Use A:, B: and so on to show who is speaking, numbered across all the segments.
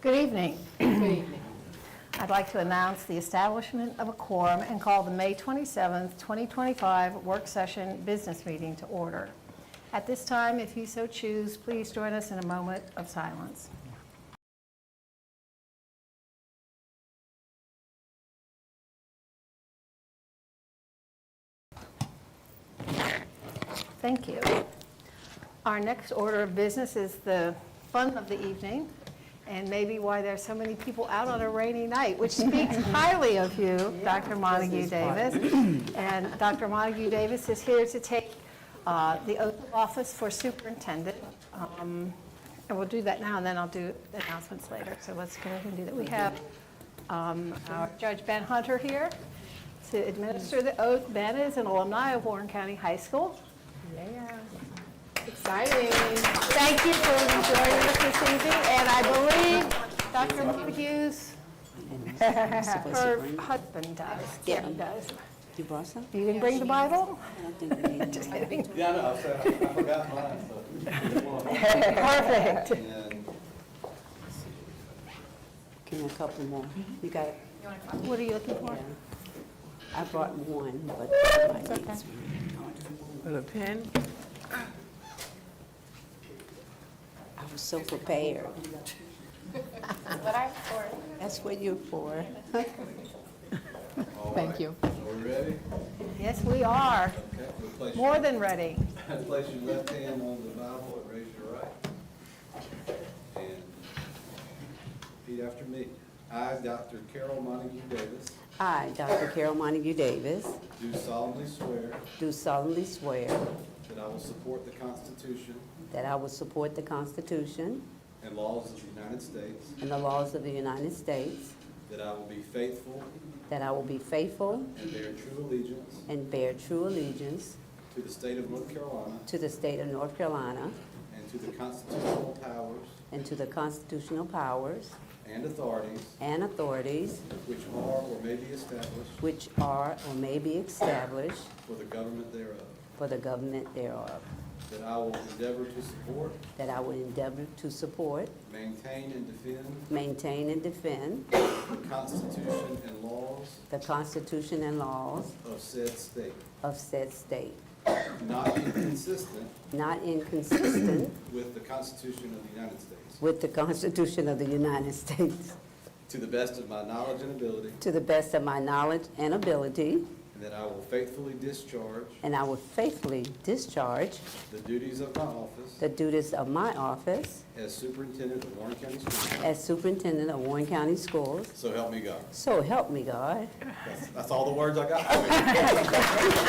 A: Good evening.
B: Good evening.
A: I'd like to announce the establishment of a quorum and call the May 27th, 2025 work session business meeting to order. At this time, if you so choose, please join us in a moment of silence. Thank you. Our next order of business is the fun of the evening, and maybe why there's so many people out on a rainy night, which speaks highly of you, Dr. Montague Davis. And Dr. Montague Davis is here to take uh, the oath of office for superintendent. Um, And we'll do that now, and then I'll do the announcements later, so let's go ahead and do that. We have um, our Judge Ben Hunter here to administer the oath. Ben is an alumni of Warren County High School.
B: Yeah. Exciting.
A: Thank you for joining us this evening, and I believe Dr. Montague's, her husband does, Jim does.
C: You brought some?
A: You can bring the Bible? Just kidding.
D: Yeah, I know, I said, I forgot mine, so.
A: Perfect.
D: And
C: Give me a couple more. You got,
A: What are you looking for?
C: yeah. I brought one, but I might need some.
E: With a pen?
C: I was so prepared. What I'm for. That's what you're for.
B: Thank you.
D: Are we ready?
A: Yes, we are,
D: Okay, we'll place your-
A: more than ready.
D: Place your left hand on the Bible and raise your right. And repeat after me. I, Dr. Carol Montague Davis,
C: I, Dr. Carol Montague Davis,
D: do solemnly swear
C: do solemnly swear
D: that I will support the Constitution
C: that I will support the Constitution
D: and laws of the United States,
C: and the laws of the United States,
D: that I will be faithful
C: that I will be faithful
D: and bear true allegiance
C: and bear true allegiance
D: to the state of North Carolina
C: to the state of North Carolina
D: and to the constitutional powers
C: and to the constitutional powers
D: and authorities
C: and authorities
D: which are or may be established
C: which are or may be established
D: for the government thereof,
C: for the government thereof,
D: that I will endeavor to support,
C: that I will endeavor to support,
D: maintain, and defend
C: maintain, and defend
D: the Constitution and laws
C: the Constitution and laws
D: of said state,
C: of said state,
D: not inconsistent
C: not inconsistent
D: with the Constitution of the United States,
C: with the Constitution of the United States,
D: to the best of my knowledge and ability,
C: to the best of my knowledge and ability,
D: and that I will faithfully discharge
C: and I will faithfully discharge
D: the duties of my office
C: the duties of my office
D: as superintendent of Warren County Schools.
C: as superintendent of Warren County Schools.
D: So help me God.
C: So help me God.
D: That's- That's all the words I got.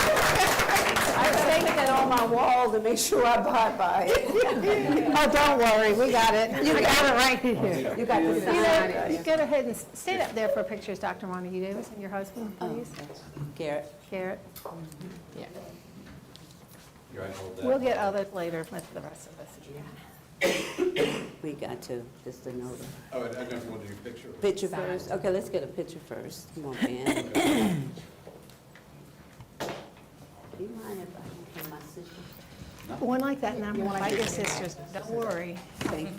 A: I think that on my wall to make sure I abide by it. Oh, don't worry, we got it. You got it right here.
C: You got the
A: You know, you go ahead and stand up there for pictures, Dr. Montague Davis and your husband, please.
C: Garrett.
A: Garrett,
B: Yeah.
D: You're right, hold that.
A: we'll get others later with the rest of us.
C: We got to, just a note.
D: Oh, and I never wanted your picture.
C: Picture first? Okay, let's get a picture first. Come on, Ben. Do you mind if I can my sister?
A: One like that, and I'm going to invite your sisters, don't worry.
C: Thank you.